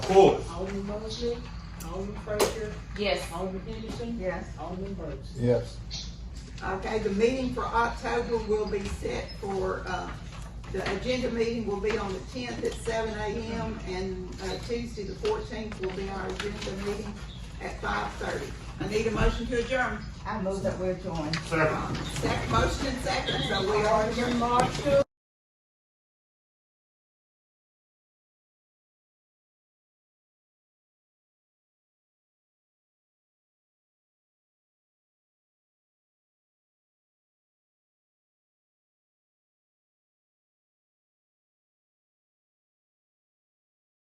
Full. Alderman Mosley, Alderman Frazier, Yes. Alderman Henderson, Yes. Alderman Burks. Yes. Okay, the meeting for October will be set for, uh, the agenda meeting will be on the tenth at seven AM and, uh, Tuesday, the fourteenth will be our agenda meeting at five thirty. I need a motion to adjourn. I move that we adjourn. Second. Second motion and second, so we are adjourned.